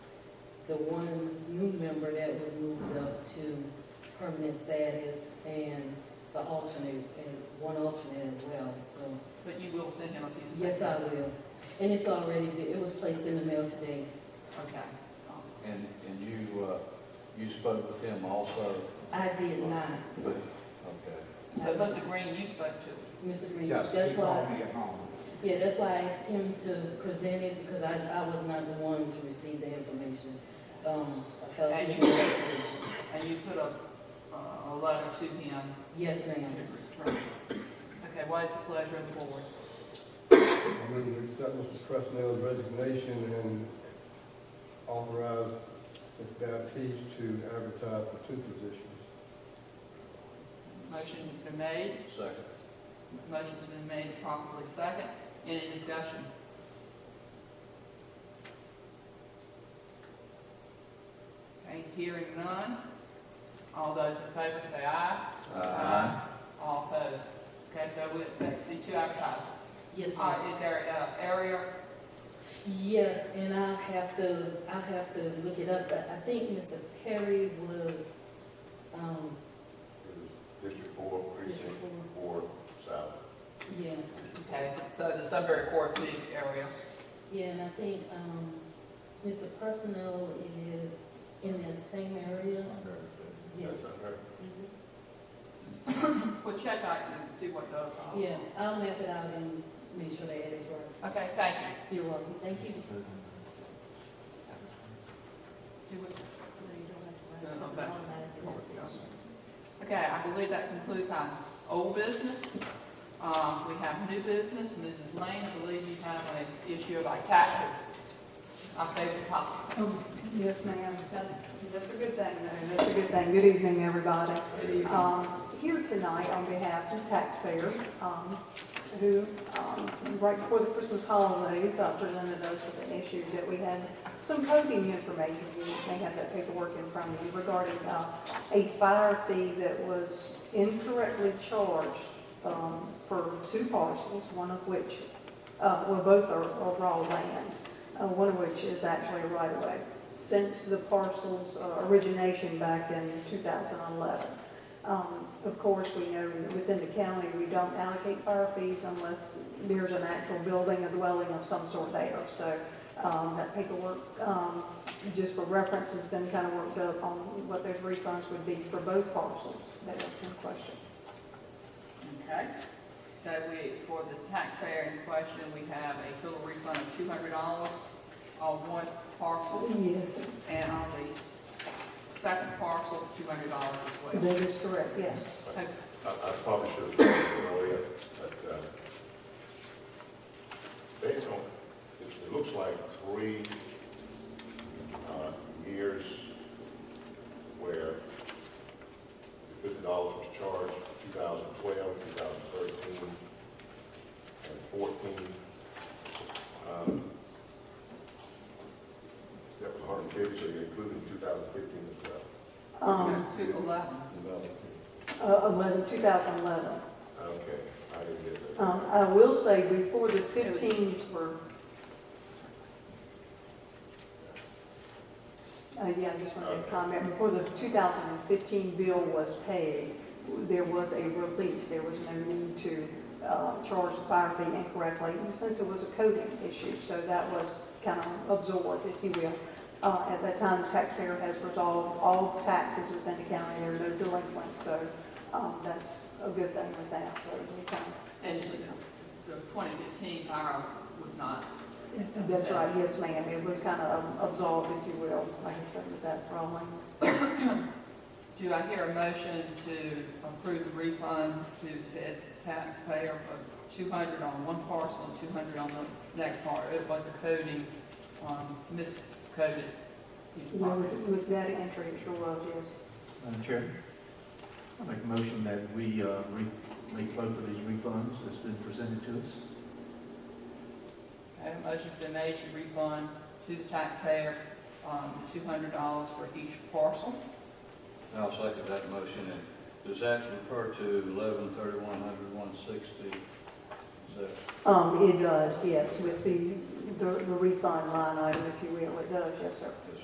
the one new member that was moved up to permanent status and the alternate, and one alternate as well, so. But you will send him a piece of paper? Yes, I will. And it's already, it was placed in the mail today. Okay. Um, And, and you, uh, you spoke with him also, I did not. but, okay. But Mr. Green, you spoke to, Mr. Reese, Yes, that's he why, called me at home. yeah, that's why I asked him to present it because I, I was not the one to receive the information. Um, I felt And it you- was an obligation. and you put a, uh, a letter to him Yes, to ma'am. return. Okay, what is the pleasure of the board? I move to accept Mr. Presnell's resignation and authorize Ms. Baptiste to advertise for two positions. Motion has been made, Second. motion's been made properly second. Any discussion? Okay, hearing none. All those in favor say aye. Uh, All opposed. Okay, so we accept the two advertisements. Yes, Uh, ma'am. is there an area Yes, and I'll have to, I'll have to look it up, but I think Mr. Perry was, um, District four, precinct four, south. yeah, Okay, so the Sunbury Court League area, yeah, and I think, um, Mr. Personnel is in that same area. Yes. That's under. we'll check out and see what the. uh, Yeah, I'll map it out and make sure they add it for, Okay, thank you. you're welcome, thank you. No, no, back. Okay, I believe that concludes our old business. Um, we have new business, Mrs. Lane, I believe you have an issue about taxes. Our favorite topic. Oh, yes, ma'am, that's, that's a good thing, though, that's a good thing. Good evening, everybody. Um, Here tonight on behalf of taxpayers, um, who, um, right before the Christmas holidays, uh, presented us with an issue that we had some coding information, you may have that paperwork in front of you, regarding uh, a fire fee that was incorrectly charged um, for two parcels, one of which, uh, well, both are are raw land uh, one of which is actually a right-of-way, since the parcel's uh, origination back in 2011. Um, Of course, we know that within the county, we don't allocate fire fees unless there's an actual building, a dwelling of some sort there. So um, that paperwork, um, just for reference, has been kind of worked up on what those refunds would be for both parcels that are in question. Okay. So we, for the taxpayer in question, we have a total refund of two hundred dollars on one parcel. Yes, And on the s- second parcel, two hundred dollars as well. that is correct, yes. Okay, I, I probably should have said it earlier, but, uh, based on, it, it looks like three, uh, years where the fifty dollars was charged, 2012, 2013, and fourteen. Um, That was hundred and fifty, so you're including two thousand fifteen as well. Um, Two eleven. uh, 11, 2011. Okay, I didn't get that. Um, I will say before the fifteens were. Uh, yeah, I just wanted to comment, before the two thousand and fifteen bill was paid, there was a release, there was no need to, uh, charge the fire fee incorrectly, and since it was a coding issue, so that was kind of absorbed, if you will. Uh, at that time, the taxpayer has resolved all taxes within the county, there are no delinquents, so, um, that's a good thing with that, so we kind of And the twenty fifteen fire was not. That's right, yes, ma'am. It was kind of absolved, if you will, like I said, with that problem. Do I hear a motion to approve the refund to said taxpayer for two hundred on one parcel and two hundred on the next part? It was a coding, um, miscoded. piece of You know, property. With with that entry, it sure was, yes. Madam Chair, I make a motion that we uh, re- make both of these refunds that's been presented to us. Okay, motion's been made to refund to the taxpayer, um, two hundred dollars for each parcel. I'll second that motion, and does that refer to eleven thirty-one hundred one sixty? Is that Um, it does, yes, with the, the the refund line item, if you will, it does, yes, sir.